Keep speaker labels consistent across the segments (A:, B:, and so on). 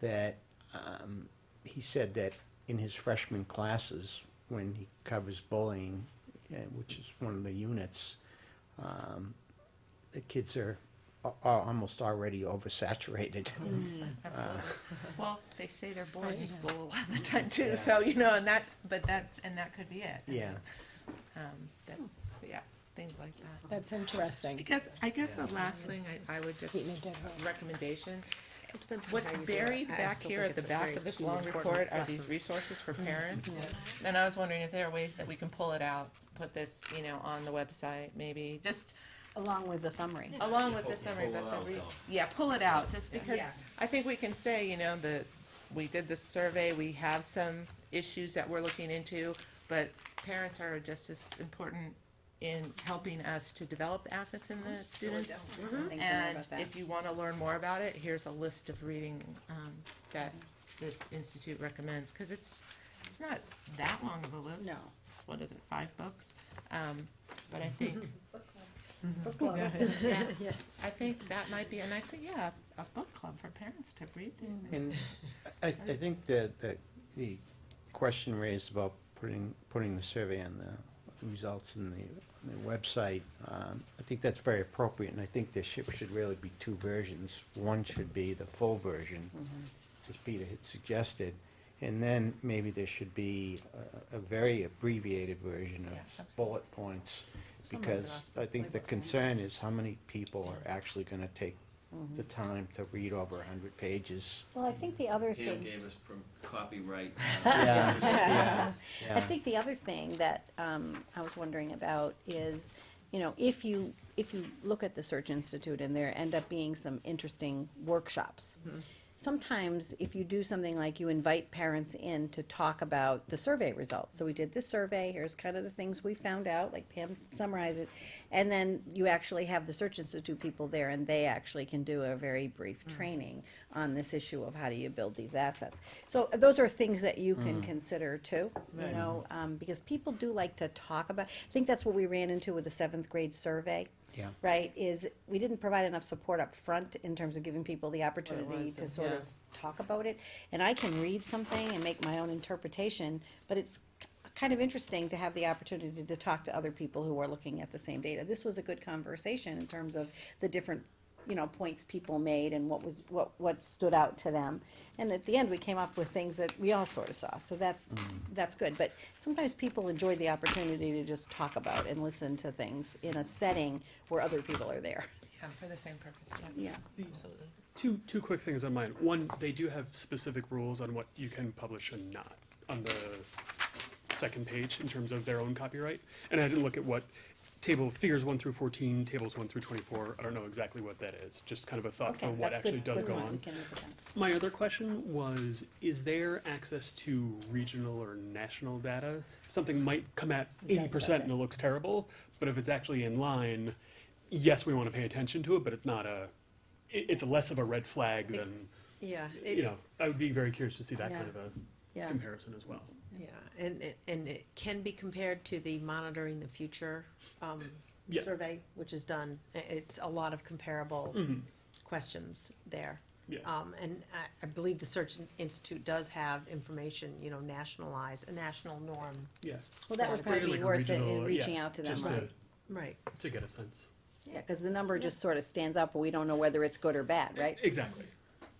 A: that um, he said that in his freshman classes, when he covers bullying, eh, which is one of the units, um, the kids are, a- are almost already oversaturated.
B: Absolutely. Well, they say they're boarding
C: Right.
B: school a lot of the time too,
A: Uh. Yeah.
B: so, you know, and that, but that, and that could be it.
A: Yeah, Hmm.
B: Um, that, yeah, things like that.
C: That's
B: I
C: interesting.
B: guess, I guess the last thing I, I would just,
C: Treatment of us.
B: recommendation,
D: It depends on
B: what's
D: how you do it.
B: buried
D: I
B: back
D: still
B: here
D: think
B: at the
D: it's a
B: back
D: very
B: of this
D: key,
B: long
D: important
B: report are
D: lesson. Mm-hmm.
B: these resources for parents. And I was wondering if there are ways that we can pull it out, put this, you know, on the website, maybe, just
D: Along with the summary.
B: along with the
E: Pull-
B: summary,
E: pull
B: but
E: it
B: the,
E: out,
B: re-
E: though.
B: yeah, pull it out, just because
D: Yeah.
B: I think we can say, you know, the, we did this survey, we have some issues that we're looking into, but parents are just as important in helping us to develop assets in the students.
C: Mm-hmm.
B: And if you want to learn more about it, here's a list of reading um, that
D: Mm-hmm.
B: this institute recommends, because it's, it's not that long of a list.
D: No.
B: What is it, five books? Um, But I think
D: Book club. Yeah, yes.
B: I think that might be a nice thing, yeah, a book club for parents to read these
D: Mm-hmm.
B: things.
A: and I, I think that, that the question raised about putting, putting the survey on the results in the, on the website, um, I think that's very appropriate, and I think there should, should really be two versions. One should be the full version,
B: Mm-hmm.
A: as Peter had suggested, and then maybe there should be a, a very abbreviated version
B: Yeah,
A: of
B: absolutely.
A: bullet points,
B: Some of us
A: because
B: are
A: I think the
B: labeled.
A: concern is how many people are actually gonna take
B: Mm-hmm.
A: the time to read over a hundred pages.
F: Well, I think the other
E: Pam
F: thing,
E: gave us prom- copyright. uh,
A: Yeah,
F: I think the other thing that um, I was wondering about is, you know, if you, if you look at the Search Institute and there end up being some interesting workshops. Sometimes if you do something like you invite parents in to talk about the survey results. So we did this survey, here's kind of the things we found out, like Pam summarized it. And then you actually have the Search Institute people there and they actually can do a very brief training on this issue of how do you build these assets. So uh, those are things that you can consider too, you know, um, because people do like to talk about, I think that's what we ran into with the seventh grade survey.
A: Yeah.
F: Right, is we didn't provide enough support up front in terms of giving people the opportunity
D: was,
F: to sort
D: yeah.
F: of talk about it. And I can read something and make my own interpretation, but it's k- kind of interesting to have the opportunity to talk to other people who are looking at the same data. This was a good conversation in terms of the different, you know, points people made and what was, what, what stood out to them. And at the end, we came up with things that we all sort of saw, so that's,
G: Mm-hmm.
F: that's good. But sometimes people enjoy the opportunity to just talk about and listen to things in a setting where other people are there.
B: Yeah, for the same purpose,
F: Yeah.
B: absolutely.
G: Two, two quick things on mine. One, they do have specific rules on what you can publish and not on the second page in terms of their own copyright. And I didn't look at what table figures one through fourteen, tables one through twenty-four. I don't know exactly what that is. Just kind of a thought for
F: Okay,
G: what
F: that's
G: actually
F: good,
G: does
F: good
G: go
F: one, we
G: on.
F: can look at that.
G: My other question was, is there access to regional or national data? Something might come at eighty percent and it looks terrible, but if it's actually in line, yes, we wanna pay attention to it, but it's not a, it, it's less of a red flag than,
C: Yeah.
G: you know, I would be very curious to see that
D: Yeah.
G: kind of a
D: Yeah.
G: comparison as well.
D: Yeah, and, it- and it can be compared to the monitoring the future, um,
G: Yeah.
D: survey, which is done. I- It's a lot of comparable questions there.
G: Mm-hmm. Yeah.
D: Um, and I, I believe the Search Institute does have information, you know, nationalized, a national norm.
G: Yeah,
F: Well, that would
D: Yeah,
F: probably
G: like
F: be
G: a
F: worth it
G: regional,
F: in
G: yeah,
F: reaching out to them,
G: just
F: right?
G: to,
D: Right.
G: to get a sense.
F: Yeah, because the number just sort of stands up, but we don't know whether it's good or bad, right?
G: Exactly.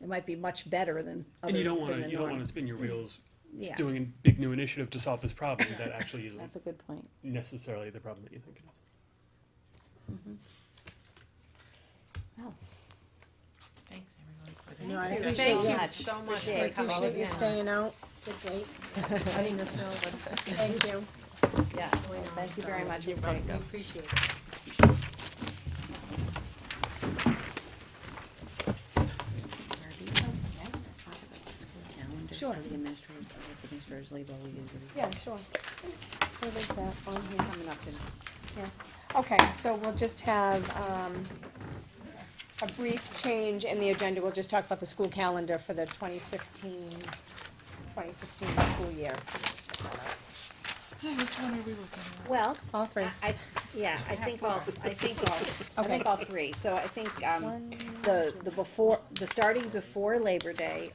F: It might be much better than other
G: And you don't
F: than
G: wanna,
F: the
G: you don't
F: norm.
G: wanna spin your wheels
F: Yeah.
G: doing a big new initiative to solve this problem that actually
F: That's
G: isn't
F: a good point.
G: necessarily the problem that you think it is.
B: Thanks, everyone.
C: No, I
F: Thank you
C: appreciate
F: so
C: you.
F: much.
D: so much
C: I appreciate you staying out this late.
D: letting us know what's
C: Thank you.
F: Yeah,
D: going on.
F: thank you very
D: So
F: much.
D: we
F: It was great.
D: Appreciate it.
C: Sure.
F: So the administrators, other administrators leave while we do the results.
C: Yeah, sure. Where is that on here?
F: Coming up to
C: Yeah. Okay, so we'll just have, um, a brief change in the agenda. We'll just talk about the school calendar for the 2015-2016 school year.
B: Which one are we looking at?
F: Well,
C: All three.
F: I, I- yeah, I think all, I think all, I think all three. So I think, um, the, the before, the starting before Labor Day